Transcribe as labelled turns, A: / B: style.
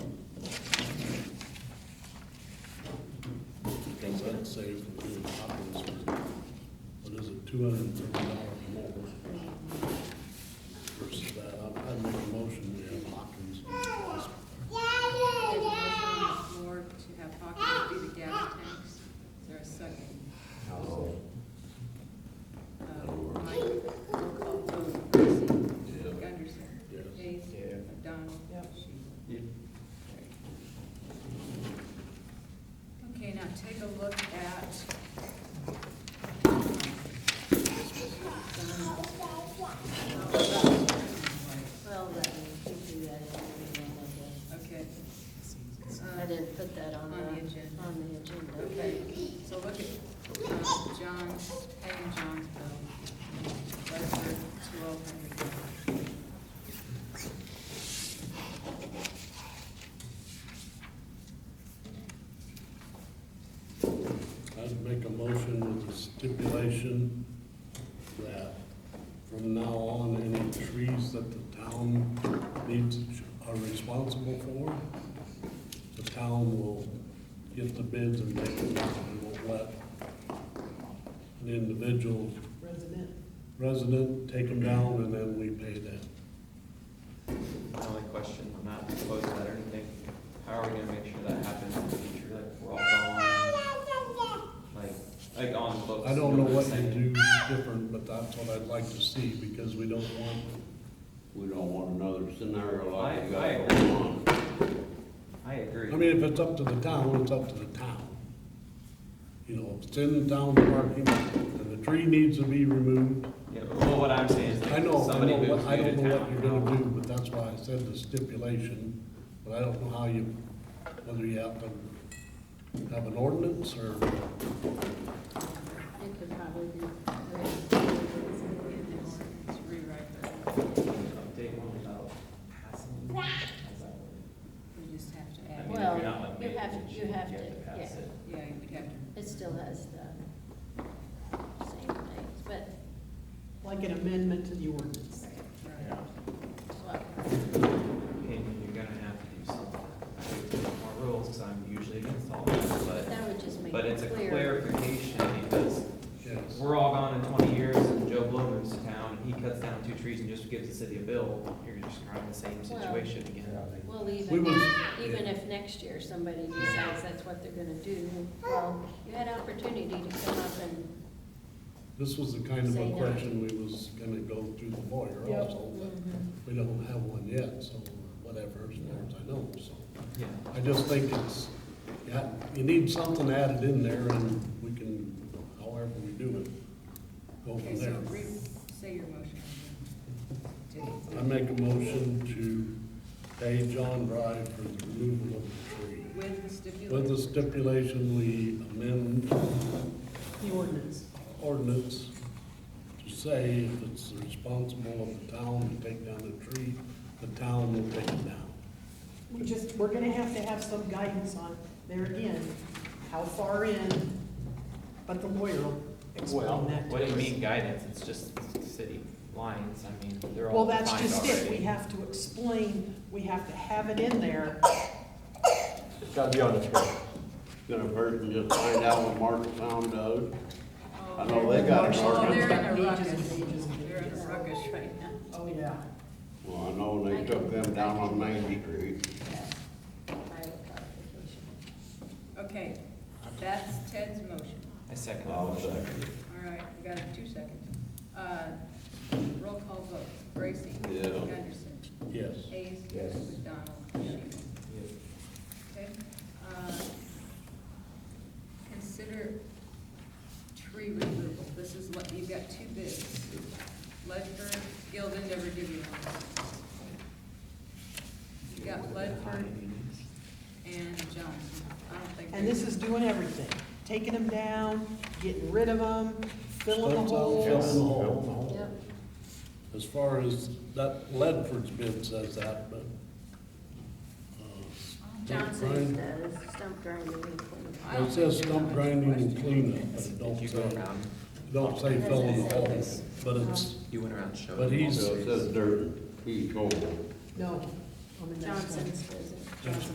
A: saved from doing copies was, what is it, two hundred and thirty dollars more versus that. I- I'd make a motion, we have Hopkins.
B: Lord, to have Hawkins do the gas tax. Is there a second?
C: Howell,
B: Uh, Mike, roll call vote. Chrissy,
C: Yeah.
B: Gunderson.
A: Yes.
B: Hayes.
C: Yeah.
B: McDonald.
D: Yep.
B: Sheehan.
C: Yeah.
B: Carried. Okay, now take a look at.
E: Well, that, we could do that if we wanted
B: Okay.
E: to. I didn't put that
B: On
E: on the,
B: the agenda.
E: on the agenda.
B: Okay, so look at um, John's, Peg and John's bill, Bedford, twelve hundred.
A: I'd make a motion with the stipulation that from now on, any trees that the town needs, are responsible for, the town will get the bids and make them, and won't let an individual
D: Resident.
A: resident take them down, and then we pay them.
C: My only question, I'm not opposed to that or anything, how are we gonna make sure that happens in the future, like, we're all gone? Like, like on the books?
A: I don't know what
C: I'm
A: you
C: saying?
A: do different, but that's what I'd like to see, because we don't want
F: We don't want another scenario like we
C: I- I
F: got going on.
C: I agree.
A: I mean, if it's up to the town, it's up to the town. You know, if it's in the town parking, and the tree needs to be removed.
C: Yeah, but well, what I'm saying is,
A: I
C: like,
A: know, I
C: somebody
A: know,
C: moves you to
A: what-
C: town.
A: I don't know what you're gonna do, but that's why I said the stipulation, but I don't know how you, whether you have to have an ordinance or,
E: It could probably be.
B: Rewrite that,
C: Update one without passing. How's that work?
B: we just have to
C: I mean,
B: add,
C: if
E: Well,
C: you're not, like,
E: you
C: making
E: have-
C: a
E: you
C: change,
E: have to,
C: pass
E: yeah.
C: it.
B: yeah, we'd have to,
E: It still has the same things, but,
D: Like an amendment to the ordinance.
B: right,
C: Yeah.
E: well,
C: opinion, you're gonna have to do something. I hate to make more rules, because I'm usually against all that, but,
E: that would just make
C: but it's a
E: it clear.
C: clarification, because
A: yes.
C: we're all gone in twenty years, and Joe Blow moves to town, and he cuts down two trees and just gives the city a bill, you're just kind of in the same
E: Well-
C: situation again.
E: Well,
A: We
E: even,
A: was-
E: even if next year somebody decides that's what they're gonna do, well, you had opportunity to come up and,
A: This was the kind of
E: Say
A: a
E: no.
A: question we was gonna go through the lawyer
D: Yep.
A: also, but
E: Mm-hmm.
A: we don't have one yet, so whatever, as far as I know, so.
C: Yeah,
A: I just think it's, you ha- you need something added in there and we can, however we do it, go
B: okay,
A: from
B: so
A: there.
B: re, say your motion.
A: I make a motion to pay John Drive for the removal of the tree.
B: With the
A: With the
B: stipulation,
A: stipulation we amend
D: The ordinance.
A: ordinance to say if it's responsible of the town to take down a tree, the town will take it down.
D: We just, we're gonna have to have some guidance on, there again, how far in, but the lawyer will
C: well,
D: explain that
C: what do
D: to
C: you
D: us.
C: mean guidance, it's just city lines, I mean, they're
D: Well,
C: all
D: that's
C: defined
D: just it, we
C: already.
D: have to explain, we have to have it in there.
F: It's gotta be on the tree. Gonna person just find out what Marshall Town does. I know they got an
D: Marshall,
B: oh, they're
F: ordinance.
B: in a ruckus,
D: Pages and pages and
B: they're in a
D: pages.
B: ruckus right now.
D: Oh, yeah.
F: Well, I know they took them down on Main Street.
E: by clarification.
B: Okay, that's Ted's motion.
C: I second that
F: I'll
C: motion.
F: second it.
B: All right, we got it, two seconds. Uh, Roll call vote, Bracy.
F: Yeah.
B: Gunderson.
A: Yes.
B: Hayes.
F: Yes.
B: McDonald. Sheehan.
C: Yeah.
B: Okay. uh, Consider tree removal. This is what, you've got two bids. Ledford, Gildan never give you one. You've got Ledford and Johnson. I don't think.
D: And this is doing everything, taking them down, getting rid of them, filling the
A: That's all, fill in the
D: holes.
A: hole.
E: Yep.
A: As far as that Ledford's bid says that, but. uh,
E: Johnson does stump grinder weekly.
B: I don't
A: It says
B: think-
A: stump grinding and cleanup, but it
C: Did
A: don't
C: you go
A: say,
C: around,
A: don't say fill in the hole, but it's,
C: you went around showing?
A: But
C: them all
A: he's-
F: So it says dirt, he's old.
D: No, on the next one.
E: Johnson's does it.
A: Johnson.